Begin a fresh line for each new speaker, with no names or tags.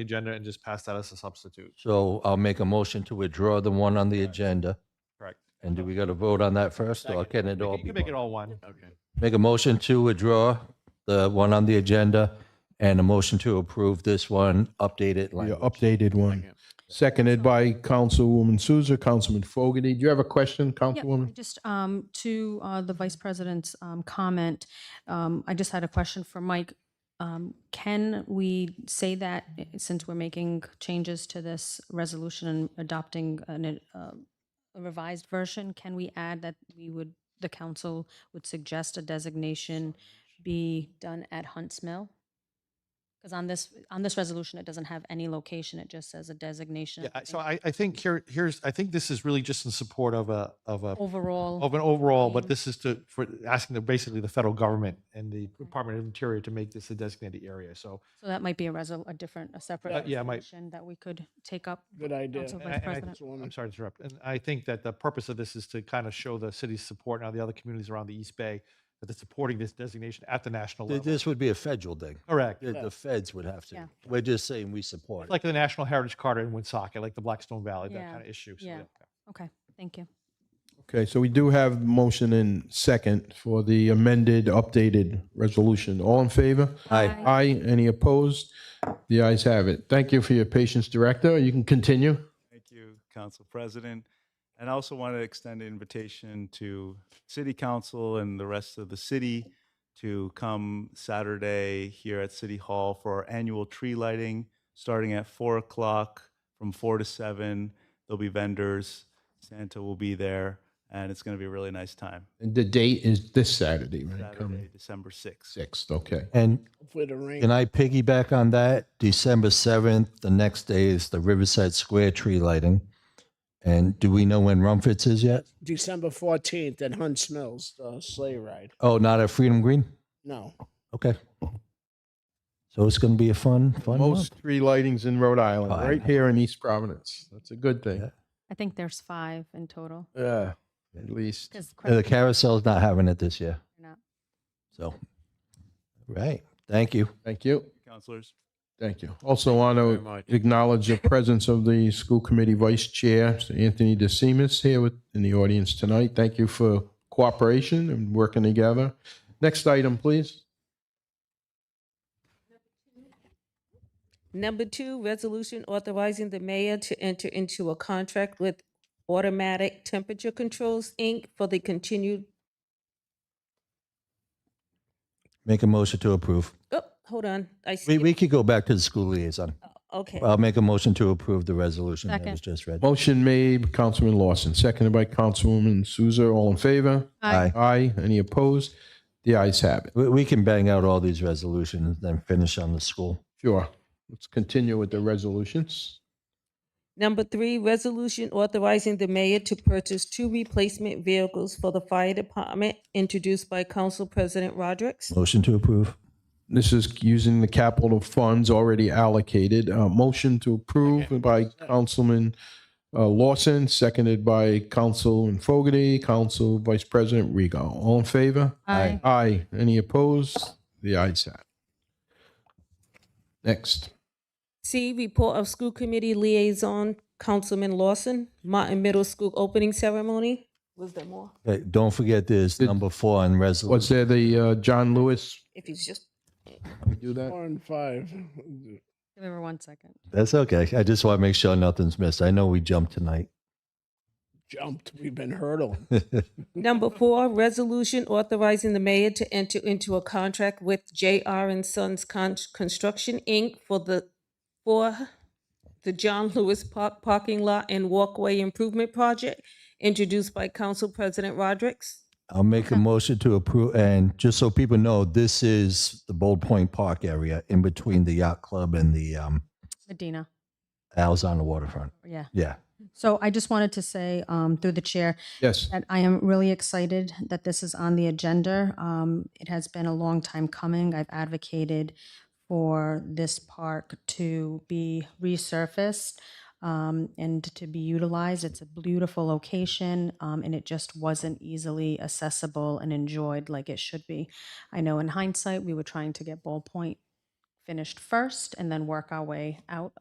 the agenda and just pass that as a substitute.
So I'll make a motion to withdraw the one on the
Correct.
agenda.
Correct.
And do we got to vote on that first or can it all
You
be?
can make it
one?
all one. Okay.
Make a motion to withdraw the one on the agenda and a motion to approve this one, updated
Yeah,
language.
updated one. Seconded by Councilwoman Souza, Councilman Fogarty. Do you have a question,
Yeah,
Councilwoman?
Just um, to uh, the vice president's um, comment, um, I just had a question for Mike. Um, Can we say that, eh, since we're making changes to this resolution and adopting an, uh, a revised version, can we add that we would, the council would suggest a designation be done at Hunts Mill? Because on this, on this resolution, it doesn't have any location, it just says a designation.
Yeah,
of
I-
the
so
thing.
I, I think here, here's, I think this is really just in support of a, of a,
Overall.
of an overall, but
theme.
this is to, for asking the, basically the federal government and the Department of Interior to make this a designated area. So
So that might be a resol, a different, a separate
Uh, yeah, it might-
resolution that we could take up.
Good idea.
Council
And I-
Vice
and I-
President.
I'm sorry to interrupt. And I think that the purpose of this is to kind of show the city's support now the other communities around the East Bay that they're supporting this designation at the national
Th-
level.
This would be a federal thing.
Correct.
The the feds would have to.
Yeah.
We're just saying we support it.
Like the National Heritage Carter in Woonsocket, like the Blackstone Valley, that
Yeah,
kind of issue. So,
yeah. Okay, thank you.
Okay, so we do have motion and second for the amended, updated resolution. All in favor?
Aye.
Aye. Any opposed? The ayes have it. Thank you for your patience, Director. You can continue.
Thank you, Council President. And I also want to extend an invitation to City Council and the rest of the city to come Saturday here at City Hall for our annual tree lighting, starting at four o'clock, from four to seven. There'll be vendors, Santa will be there, and it's going to be a really nice time.
And The date is this Saturday, right? Coming
Saturday, December sixth.
6th, okay.
And
Hopefully the rain.
can I piggyback on that? December 7th, the next day is the Riverside Square tree lighting. And do we know when Rumfords is yet?
December 14th at Hunts Mills, the sleigh ride.
Oh, not at Freedom Green?
No.
Okay. So it's going to be a fun, fun month.
Most tree lightings in Rhode Island,
Fine.
right here in East Providence. That's a good thing.
I think there's five in total.
Yeah, at least.
Because
Yeah, The carousel's not having it this year.
not.
So, right. Thank you.
Thank you.
Councilors?
Thank you. Also want to acknowledge the presence of the school committee vice chair, Mr. Anthony DeSimis, here with, in the audience tonight. Thank you for cooperation and working together. Next item, please.
Number two, resolution authorizing the mayor to enter into a contract with Automatic Temperature Controls, Inc. for the continued,
Make a motion to approve.
oh, hold on, I
We,
see,
we could go back to the school liaison.
okay.
I'll make a motion to approve the resolution that
Second.
was just read.
Motion made, by Councilman Lawson, seconded by Councilwoman Souza. All in favor?
Aye.
Aye. Any opposed? The ayes have it.
We, we can bang out all these resolutions, then finish on the school.
Sure. Let's continue with the resolutions.
Number three, resolution authorizing the mayor to purchase two replacement vehicles for the fire department, introduced by Council President Rodrick.
Motion to approve.
This is using the capital funds already allocated. Uh, motion to approve by Councilman uh, Lawson, seconded by Councilman Fogarty, Council Vice President Rego. All in favor?
Aye.
Aye. Any opposed? The ayes have. it. Next.
C, report of school committee liaison, Councilman Lawson, Martin Middle School opening ceremony. Was there more?
Hey, don't forget there's number four on
Was
resolution.
there the uh, John Lewis?
If you just
We do
Uh,
that?
Four and five.
Give her one second.
That's okay. I just want to make sure nothing's missed. I know we jumped tonight.
Jumped. We've been hurdling.
Number four, resolution authorizing the mayor to enter into a contract with J.R. and Sons Con- Construction, Inc. for the, for the John Lewis Park Parking Lot and Walkway Improvement Project, introduced by Council President Rodrick.
I'll make a motion to approve, and just so people know, this is the Bold Point Park area in between the yacht club and the um,
Medina,
Al's on the waterfront.
yeah.
Yeah.
So I just wanted to say, um, through the chair,
Yes.
that I am really excited that this is on the agenda. Um, It has been a long time coming. I've advocated for this park to be resurfaced um, and to be utilized. It's a beautiful location, um, and it just wasn't easily accessible and enjoyed like it should be. I know in hindsight, we were trying to get Ball Point finished first and then work our way out